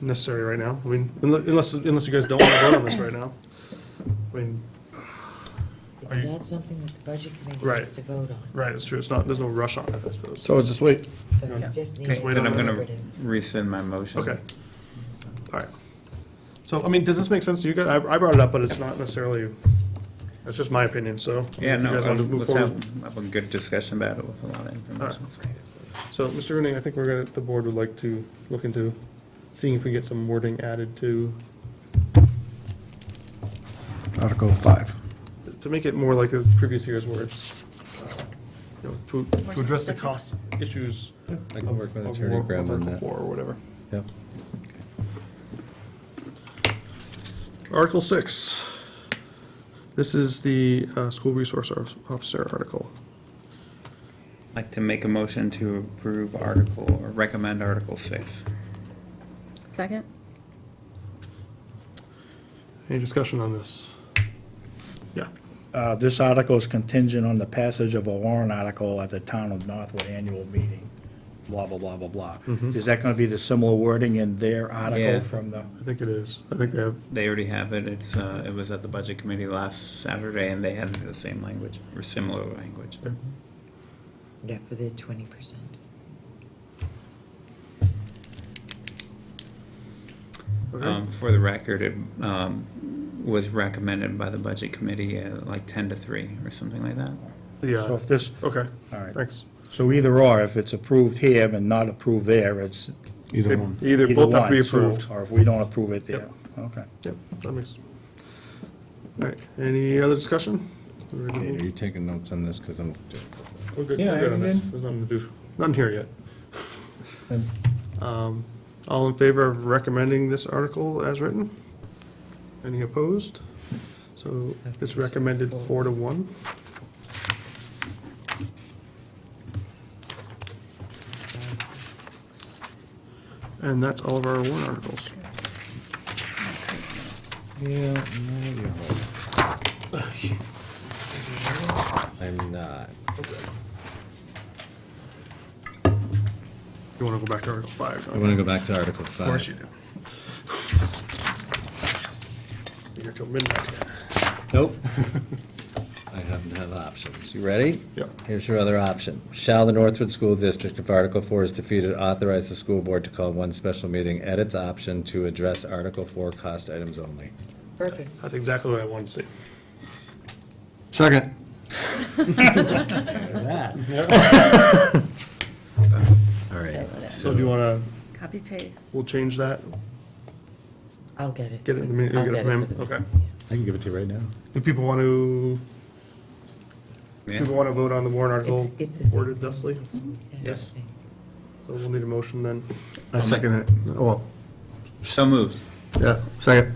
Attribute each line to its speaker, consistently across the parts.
Speaker 1: necessary right now. I mean, unle- unless, unless you guys don't want to vote on this right now. I mean,
Speaker 2: It's
Speaker 1: Are you-
Speaker 2: not something that the budget committee
Speaker 1: Right.
Speaker 2: has to vote on.
Speaker 1: right, it's true, it's not, there's no rush on it, I suppose.
Speaker 3: So just wait.
Speaker 2: So you just need
Speaker 1: Just wait
Speaker 2: to
Speaker 1: on
Speaker 4: Then I'm
Speaker 1: that.
Speaker 4: gonna rescind my motion.
Speaker 1: Okay. All right. So, I mean, does this make sense to you guys? I I brought it up, but it's not necessarily, that's just my opinion, so.
Speaker 4: Yeah,
Speaker 1: if
Speaker 4: no,
Speaker 1: You guys want to move
Speaker 4: let's
Speaker 1: forward?
Speaker 4: have, have a good discussion about it with a lot of information.
Speaker 1: So, Mr. Rooney, I think we're gonna, the board would like to look into seeing if we get some wording added to,
Speaker 3: Article five.
Speaker 1: to make it more like the previous year's words. uh, you know, To to address the cost issues
Speaker 5: I can work with
Speaker 1: of
Speaker 5: Attorney
Speaker 1: work-
Speaker 5: Graham
Speaker 1: of
Speaker 5: on
Speaker 1: Article
Speaker 5: that.
Speaker 1: Four or whatever.
Speaker 5: Yep.
Speaker 1: Article six. This is the uh, school resource officer article.
Speaker 4: I'd Like to make a motion to approve article, or recommend Article Six.
Speaker 6: Second?
Speaker 1: Any discussion on this? Yeah.
Speaker 7: Uh, This article is contingent on the passage of a warrant article at the Town of Northwood Annual Meeting, blah, blah, blah, blah, blah. Is that going to be the similar wording in their
Speaker 4: Yeah.
Speaker 7: article from the,
Speaker 1: I think it is. I think they have,
Speaker 4: They already have it, it's, uh, it was at the Budget Committee last Saturday, and they had the same language, or similar language.
Speaker 2: Yeah, for the twenty percent.
Speaker 4: Um, for the record, it, um, was recommended by the Budget Committee at like ten to three, or something like that.
Speaker 7: so
Speaker 1: yeah,
Speaker 7: if this,
Speaker 1: okay,
Speaker 7: all right.
Speaker 1: thanks.
Speaker 7: So either or, if it's approved here and not approved there, it's
Speaker 3: Either one.
Speaker 1: Either,
Speaker 7: either
Speaker 1: both have to be
Speaker 7: one, so-
Speaker 1: approved.
Speaker 7: Or if we don't approve it there,
Speaker 1: Yep.
Speaker 7: okay.
Speaker 1: Yep, that makes. All right, any other discussion? We're
Speaker 5: Nate,
Speaker 1: good-
Speaker 5: Are you taking notes on this? Because I'm,
Speaker 1: We're good,
Speaker 7: Yeah,
Speaker 1: we're good on this.
Speaker 7: everything.
Speaker 1: There's nothing to do, nothing here yet.
Speaker 7: And
Speaker 1: Um, All in favor of recommending this article as written? Any opposed? So it's recommended four to one. And that's all of our warrant articles.
Speaker 5: yeah, no, you're right. I'm not.
Speaker 1: You want to go back to Article 5?
Speaker 5: I want to go back to Article five.
Speaker 1: Of course you do. Be here till midnight.
Speaker 5: Nope. I happen to have options. You ready?
Speaker 1: Yep.
Speaker 5: Here's your other option. Shall the Northwood School District, if Article Four is defeated, authorize the school board to call one special meeting at its option to address Article Four cost items only?
Speaker 2: Perfect.
Speaker 1: That's exactly what I wanted to say.
Speaker 3: Second.
Speaker 5: All right.
Speaker 1: So do you want to,
Speaker 6: Copy paste.
Speaker 1: we'll change that?
Speaker 2: I'll get it.
Speaker 1: Get it in the minute, you'll
Speaker 2: I'll
Speaker 1: get it
Speaker 2: for
Speaker 1: from him?
Speaker 2: the
Speaker 1: Okay.
Speaker 2: minutes, yeah.
Speaker 5: I can give it to you right now.
Speaker 1: Do people want to,
Speaker 4: Yeah.
Speaker 1: people want to vote on the warrant article
Speaker 2: It's- it's the same
Speaker 1: worded thusly? So
Speaker 2: It's the
Speaker 1: Yes.
Speaker 2: thing.
Speaker 1: we'll need a motion then.
Speaker 3: I second it. Well,
Speaker 4: So moved.
Speaker 3: yeah, second.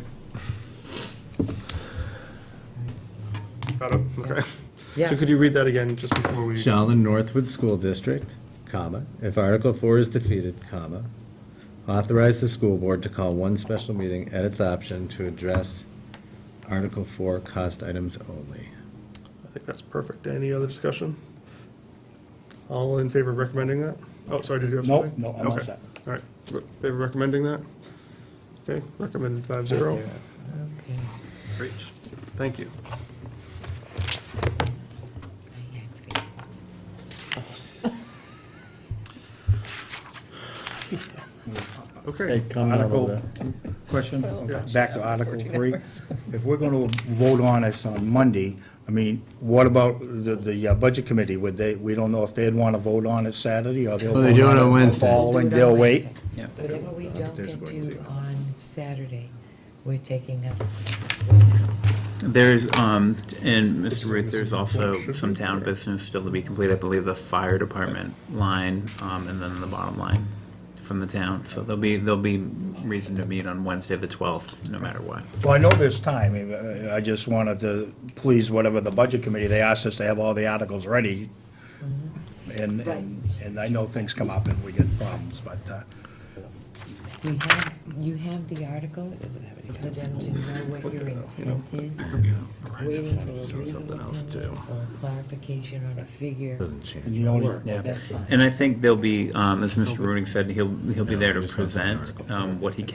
Speaker 1: Got it, okay. So
Speaker 2: Yeah,
Speaker 1: could you read that again, just before we?
Speaker 5: Shall the Northwood School District, comma, if Article Four is defeated, comma, authorize the school board to call one special meeting at its option to address Article Four cost items only?
Speaker 1: I think that's perfect. Any other discussion? All in favor of recommending that? Oh, sorry, did you have
Speaker 7: No,
Speaker 1: something?
Speaker 7: no, I'm all
Speaker 1: Okay.
Speaker 7: set.
Speaker 1: All right, Re- favor of recommending that? Okay, recommended five zero.
Speaker 2: okay.
Speaker 1: Great, thank you.
Speaker 2: I had to-
Speaker 1: Okay,
Speaker 7: Article, question, back to Article three. If we're gonna vote on this on Monday, I mean, what about the, the uh, Budget Committee? Would they, we don't know if they'd wanna vote on it Saturday, or they'll.
Speaker 5: Well, they do
Speaker 7: vote
Speaker 5: it on
Speaker 7: the
Speaker 2: Do
Speaker 5: Wednesday.
Speaker 2: it
Speaker 7: Following,
Speaker 2: on
Speaker 7: they'll Oh, wait.
Speaker 2: Wednesday.
Speaker 4: Yeah.
Speaker 2: Whatever we don't
Speaker 5: there's
Speaker 2: get
Speaker 5: Wednesday.
Speaker 2: to on Saturday, we're taking up Wednesday.
Speaker 4: There's, um, and Mr. Ruth, there's also some town business still to be completed. I believe the fire department line, um, and then the bottom line from the town. So there'll be, there'll be reason to meet on Wednesday, the twelfth, no matter what.
Speaker 7: Well, I know there's time, I- I just wanted to please whatever the Budget Committee, they asked us to have all the articles ready. And,
Speaker 2: Mm-hmm. Right.
Speaker 7: and and I know things come up and we get problems, but, uh,
Speaker 2: We have, you have the articles for them to know what your intent is, waiting for a legal opinion or clarification on a figure.
Speaker 5: Doesn't change.
Speaker 7: and you only,
Speaker 2: Works,
Speaker 7: yeah.
Speaker 2: that's fine.
Speaker 4: And I think there'll be, um, as Mr. Rudick said, he'll, he'll be there to present, um, what he